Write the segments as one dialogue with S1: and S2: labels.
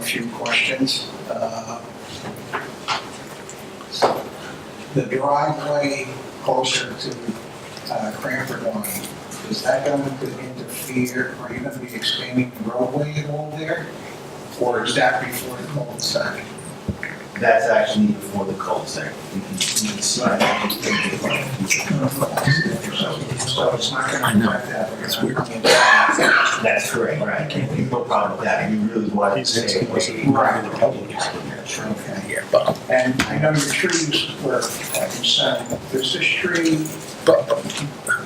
S1: few questions. Uh, The driveway closer to uh, Cranford Line, is that going to interfere, are you going to be expanding the roadway at all there? Or is that before the cul-de-sac?
S2: That's actually before the cul-de-sac. You can- you can see that.
S1: So it's not going to affect that? That's weird.
S2: That's correct, right? No problem with that. You really want to stay away.
S1: Right.
S2: Right.
S1: Okay. And I know your trees were uh, concerned, does this tree
S3: Bob-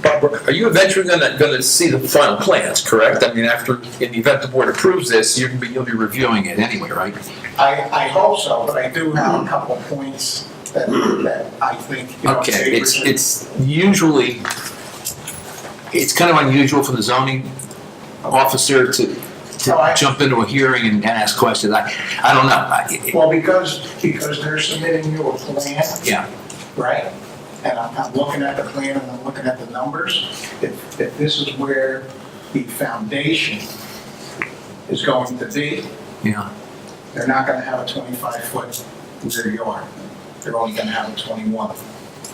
S3: Barbara, are you eventually gonna, gonna see the final plans, correct? I mean, after, in the event the board approves this, you're, you'll be reviewing it anyway, right?
S1: I, I hope so, but I do have a couple points that, that I think, you know.
S3: Okay,
S1: they
S3: it's,
S1: were-
S3: it's usually, it's kind of unusual for the zoning officer to,
S1: Oh, I-
S3: to jump into a hearing and and ask questions. I, I don't know. I-
S1: Well, because, because they're submitting you a plan.
S3: Yeah.
S1: Right? And I'm, I'm looking at the plan and I'm looking at the numbers. If, if this is where the foundation is going to be,
S3: Yeah,
S1: they're not gonna have a twenty-five foot rear yard. They're only gonna have a twenty-one.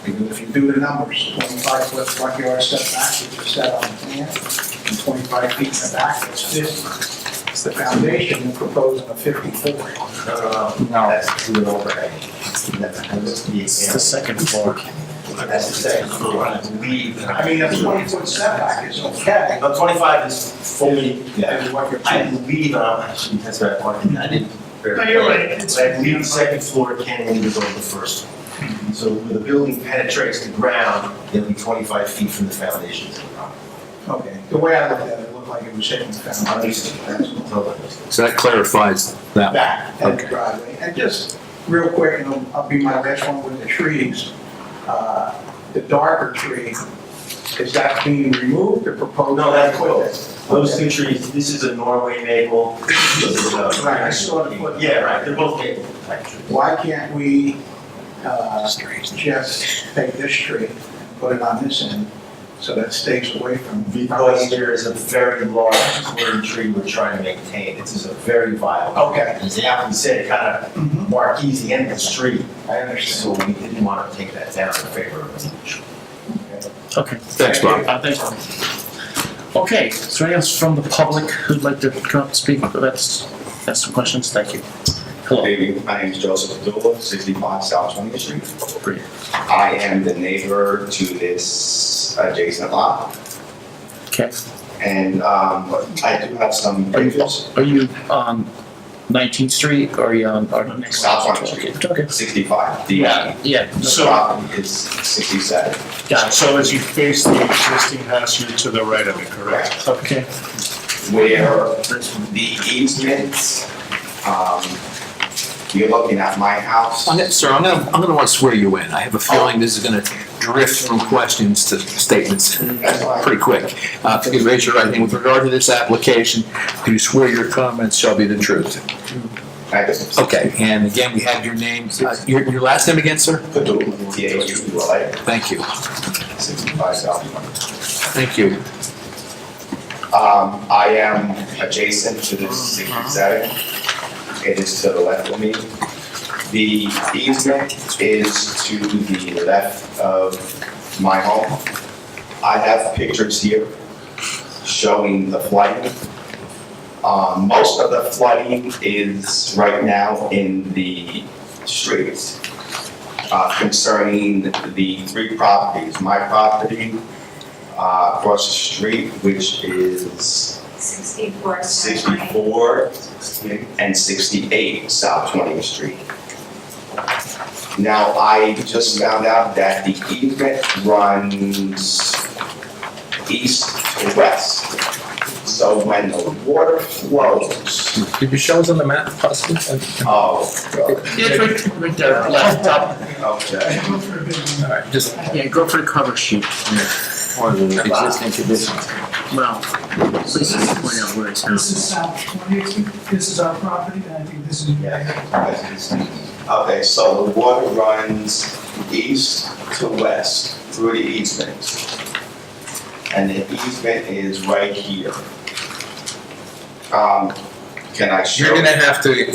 S1: Because if you do the numbers, twenty-five foot front yard setback, which is set on the plan, and twenty-five feet in the back, that's fifty. It's the foundation you're proposing a fifty-four.
S2: No, no, no, that's to the overhang. That's, that's the
S4: It's the
S2: example.
S4: second floor.
S2: That's the second floor. I believe.
S1: I mean, a twenty-foot setback is okay,
S2: But twenty-five is fully,
S1: and what you're.
S2: I believe, um, actually, that's what I wanted, I didn't.
S5: No, you're right.
S2: But I believe the second floor cantilevers over the first. one. So when the building penetrates the ground, it'll be twenty-five feet from the foundation to the property.
S1: Okay, the way I looked at it, it looked like it was hitting the
S2: At
S1: foundation.
S2: least, that's what I'm told.
S3: so that clarifies that. one.
S1: back at the
S3: Okay.
S1: driveway. And just real quick, and I'll- I'll be my last one with the trees. Uh, The darker tree, is that being removed or proposed?
S2: No, that's both. Those two trees, this is a Norway maple. this is a-
S1: Right, I saw the foot.
S2: Yeah, right, they're both maple type trees.
S1: Why can't we uh, just take this tree and put it on this end so that stays away from?
S2: Because there is a very large clearing tree we're trying to maintain. This is a very viable.
S1: Okay,
S2: As the applicant said, it kind
S1: Mhm.
S6: Mm-hmm.
S2: of marquees the end of the street.
S1: I understand.
S2: So we didn't want to take that down in favor of residential.
S4: Okay,
S3: Thanks, Bob.
S4: uh, thank you. Okay, is there anyone else from the public who'd like to come up and speak? That's, that's some questions, thank you. Hello.
S6: Good evening, my name is Joseph Abdullah, 65 South 20th Street.
S4: Great.
S6: I am the neighbor to this adjacent lot,
S4: Okay,
S6: and um, I do have some
S4: are you,
S6: previous,
S4: are you on Nineteenth Street or are you on, or the next?
S6: South Front Street.
S4: Okay.
S6: 65. The
S4: Yeah, yeah,
S6: the
S7: So,
S6: property is 67.
S4: got it.
S7: so as you face the existing house, you're to the right of it, correct?
S4: Okay,
S6: where the easement, um, you're looking at my house.
S3: I'm gonna- Sir, I'm gonna, I'm gonna want to swear you in. I have a feeling this is gonna drift from questions to statements
S6: That's why-
S3: pretty quick. Uh, If you could raise your right hand, with regard to this application, do you swear your comments shall be the truth?
S6: I just
S3: Okay, and again, we have your name, uh, your, your last name again, sir?
S6: put the DHU, like
S3: Thank you,
S6: 65 South 20th.
S3: thank you.
S6: Um, I am adjacent to the sixty-seven. It is to the left of me. The easement is to the left of my home. I have pictures here showing the flooding. Um, most of the flooding is right now in the streets uh, concerning the three properties. My property, uh, across the street, which is
S8: 64.
S6: 64 and 68 South 20th Street. Now, I just found out that the easement runs east to west. So when the water flows,
S3: Did you show us on the map possibly?
S6: oh, God,
S4: yeah, it's right, right there, left up,
S6: okay.
S3: Just
S4: yeah, go for the cover sheet.
S2: Or the
S6: existing
S2: conditions.
S4: Well, please point out where it's.
S5: This is South 20th, this is our property, and I think this is.
S6: Okay, so the water runs east to west through the easement. And the easement is right here. Um, can I show?
S3: You're gonna have to